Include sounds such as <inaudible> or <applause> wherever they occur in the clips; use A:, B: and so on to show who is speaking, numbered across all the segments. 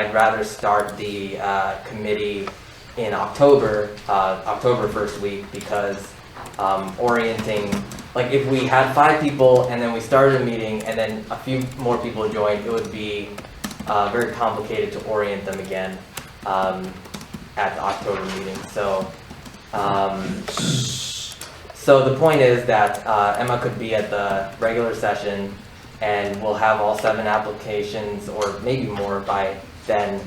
A: I'd rather start the uh, committee in October, uh, October first week, because um, orienting, like if we had five people and then we started a meeting and then a few more people joined, it would be uh, very complicated to orient them again um, at the October meeting. So, um, so the point is that uh, Emma could be at the regular session and we'll have all seven applications or maybe more by then.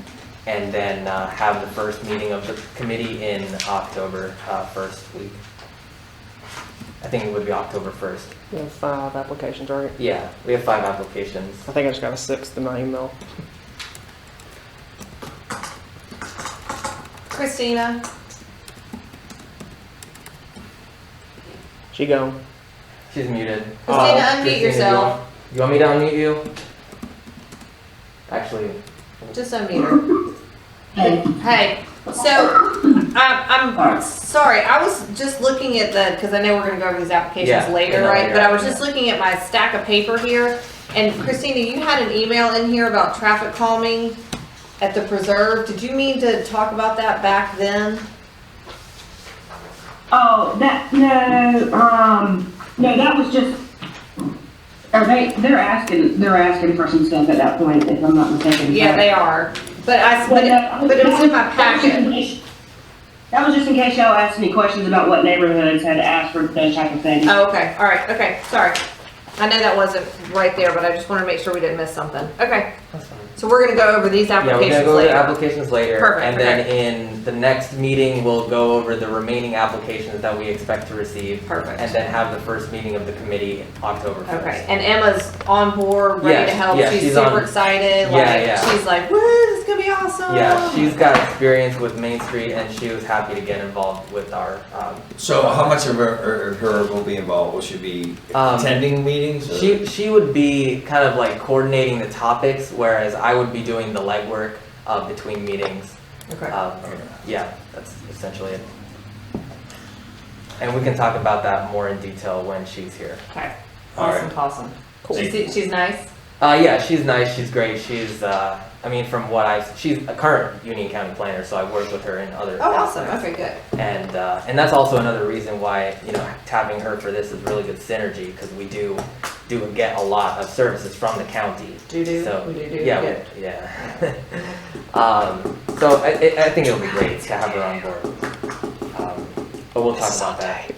A: And then uh, have the first meeting of the committee in October uh, first week. I think it would be October first.
B: We have five applications, right?
A: Yeah, we have five applications.
B: I think I just got a sixth in my email.
C: Christina,
B: She gone.
A: She's muted. Oh,
C: Christina, unmute
A: Christina,
C: yourself.
A: You want, you want me to unmute you? Actually,
C: just unmute her. Hey, so um, I'm, I'm sorry, I was just looking at the, because I know we're gonna go over these applications
A: Yeah,
C: later,
A: and then
C: right?
A: later.
C: But I was just looking at my stack of paper here, and Christina, you had an email in here about traffic calming at the preserve. Did you mean to talk about that back then?
D: Oh, that, no, um, no, that was just, are they, they're asking, they're asking for some stuff at that point, if I'm not mistaken.
C: Yeah, they are, but I, s- but it- but it was in my packet.
D: package. That was just in case y'all asked any questions about what neighborhoods had asked for those type of things.
C: Oh, okay, all right, okay, sorry. I know that wasn't right there, but I just wanted to make sure we didn't miss something. Okay.
A: that's fine.
C: So we're gonna go over these
A: Yeah, we're gonna
C: applications
A: go over the
C: later.
A: applications later.
C: Perfect,
A: And then in the next meeting, we'll go over the remaining applications that we expect to receive. And
C: Perfect.
A: then have the first meeting of the committee October
C: Okay,
A: first.
C: and Emma's on board, ready to
A: Yes,
C: help.
A: yeah,
C: She's
A: she's on-
C: super excited.
A: Yeah, yeah.
C: Like, she's like, woo, this is gonna be awesome.
A: Yeah, she's got experience with Main Street and she was happy to get involved with our, um,
E: So how much of her, of her will be involved? Will she be
A: Um,
E: attending meetings? or-
A: She she would be kind of like coordinating the topics, whereas I would be doing the legwork uh, between meetings.
C: Okay.
A: Um, yeah, that's essentially it. And we can talk about that more in detail when she's here.
C: Okay.
E: All right.
C: Awesome, awesome.
B: Cool.
C: She's, she's nice.
A: Uh, yeah, she's nice. She's great. She's uh, I mean, from what I she's a current Union County planner, so I work with her in other.
C: Oh, awesome. Okay, good.
A: And uh, and that's also another reason why you know tapping her for this is really good synergy because we do do get a lot of services from the county.
C: Do do.
A: So,
C: we do do.
A: yeah,
C: Good.
A: we- yeah. <laughs> um, so I, I I think it'll be great to have her on board. Um, but we'll talk about that.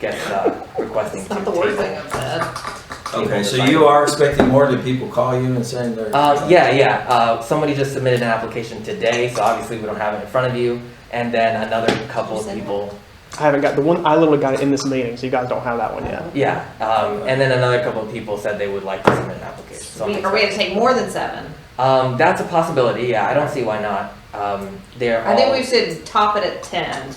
A: Get uh, requesting
C: It's
A: to
C: not the worst thing
A: table.
C: I've said.
E: Okay, so you are expecting more? Do people call you and saying they're?
A: Uh, yeah, yeah. Uh, somebody just submitted an application today, so obviously we don't have it in front of you. And then another couple of
C: Send it.
A: people.
B: I haven't got the one. I literally got it in this meeting, so you guys don't have that one yet.
A: Yeah. Um, and then another couple of people said they would like to submit an application. So I'm
C: We, are we
A: excited.
C: gonna take more than seven?
A: um, that's a possibility. Yeah, I don't see why not. Um, they're
C: I
A: all,
C: think we should top it at ten.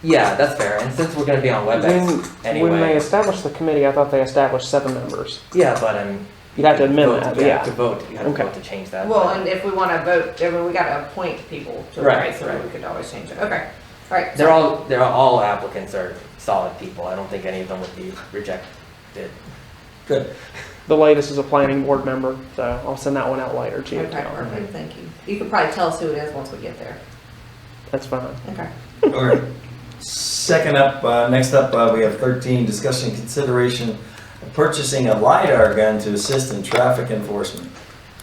A: Yeah, that's fair. And since we're going to be on
B: When,
A: WebEx anyway.
B: when they established the committee, I thought they established seven members.
A: Yeah, but um.
B: You'd have to amend
A: vote-
B: that,
A: you have
B: yeah.
A: To vote, you have to
B: Okay.
A: vote to change that.
C: Well,
A: but-
C: and if we wanna vote, I mean, we gotta appoint people to,
A: Right,
C: right, so
A: right.
C: we could always change it. Okay. All right.
A: They're all, they're all applicants are solid people. I don't think any of them would be rejected.
E: Good.
B: The latest is a planning board member, so I'll send that one out later to you.
C: Okay,
B: Tom.
C: perfect, thank you. You can probably tell us who it is once we get there.
B: That's fine.
C: Okay.
E: Okay. Second up, uh, next up, uh, we have thirteen, discussion consideration of purchasing a LiDAR gun to assist in traffic enforcement.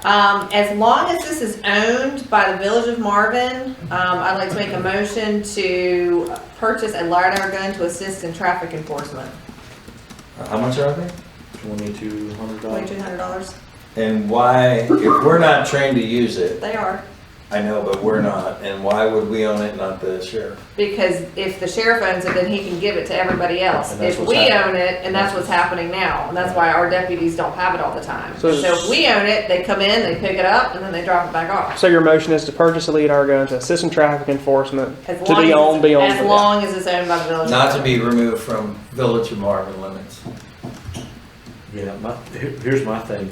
C: Um, as long as this is owned by the Village of Marvin, um, I'd like to make a motion to purchase a LiDAR gun to assist in traffic enforcement.
E: Uh, How much are they?
F: Twenty-two hundred dollars.
C: Twenty-two hundred dollars?
E: And why, if we're not trained to use it,
C: They are.
E: I know, but we're not, and why would we own it, not the sheriff?
C: Because if the sheriff owns it, then he can give it to everybody else.
F: And that's
C: If
F: what's
C: we own
F: happening.
C: it, and that's what's happening now, and that's why our deputies don't have it all the time. So
B: So-
C: if we own it, they come in, they pick it up, and then they drop it back off.
B: So your motion is to purchase a lead our gun to assist in traffic enforcement
C: As
B: to
C: long
B: be
C: as
B: owned, be owned.
C: As long as it's owned by the Village. of
E: Not to
C: Marvin.
E: be removed from Village of Marvin limits.
F: Yeah, my, here- here's my thing.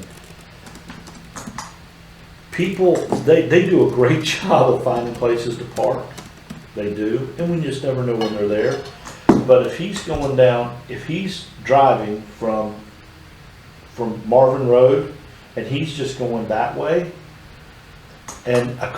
F: People, they, they do a great <laughs> job of finding places to park. They do, and we just never know when they're there. But if he's going down, if he's driving from, from Marvin Road, and he's just going that way, and a